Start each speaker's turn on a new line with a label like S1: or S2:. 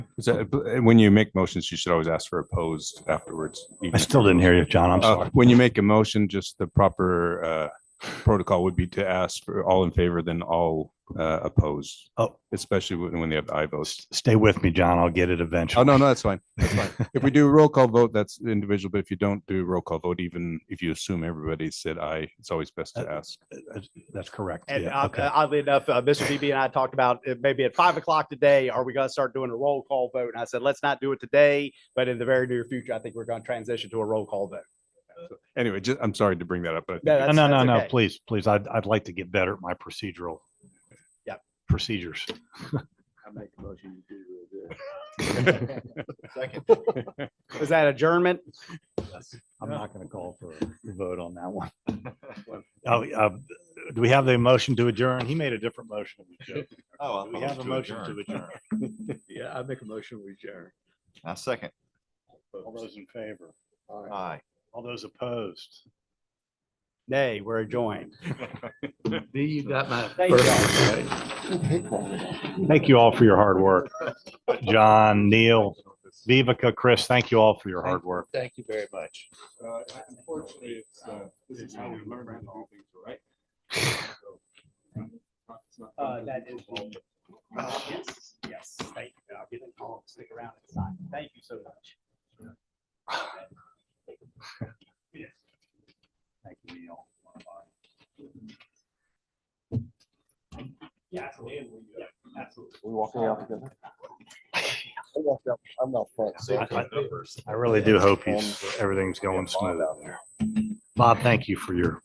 S1: Is that, when you make motions, you should always ask for opposed afterwards.
S2: I still didn't hear you, John. I'm
S1: Uh,
S2: sorry.
S1: When you make a motion, just the proper uh, protocol would be to ask for all in favor, then all uh, opposed,
S2: Oh,
S1: especially when when they have I votes.
S2: s- stay with me, John. I'll get it
S1: Oh,
S2: eventually.
S1: no, no, that's fine. That's fine. If we do roll call vote, that's individual, but if you don't do roll call vote, even if you assume everybody said aye, it's always best
S2: Uh,
S1: to ask.
S2: That's- That's correct.
S3: And
S2: Yeah,
S3: uh,
S2: okay.
S3: oddly enough, uh, Mr. DB and I talked about it maybe at five o'clock today, are we going to start doing a roll call vote? And I said, let's not do it today, but in the very near future, I think we're going to transition to a roll call vote.
S1: Anyway, just, I'm sorry to bring that up, but
S3: No,
S2: No,
S3: that's-
S2: no, no,
S3: that's
S2: no,
S3: okay.
S2: please, please. I'd, I'd like to get better at my procedural.
S3: Yeah.
S2: Procedures.
S3: Is that adjournment?
S2: I'm not going to call for a vote on that one. Oh, uh, do we have the motion to adjourn? He made a different motion. Do
S4: Oh,
S2: We have a motion to adjourn.
S5: Yeah, I make a motion with Jared.
S4: I second.
S2: All those in favor,
S4: Aye.
S2: all those opposed.
S3: Nay, we're adjourned.
S5: D, you got my.
S3: Thank you.
S2: Thank you all for your hard work. John, Neil, Vivica, Chris, thank you all for your hard work.
S5: Thank you very much.
S1: Unfortunately, it's, this is how we learn all things, right?
S3: Uh, that is. Uh, Yes, yes, thank you. I'll get a call, stick around and sign. Thank you so much.
S2: Thank you, Neil.
S3: Yeah, absolutely. Yeah, absolutely.
S6: We walk out together. I walked out, I'm not Um, front. so-
S2: I- I- I really do hope he's, everything's going smooth out there. Bob, thank you for your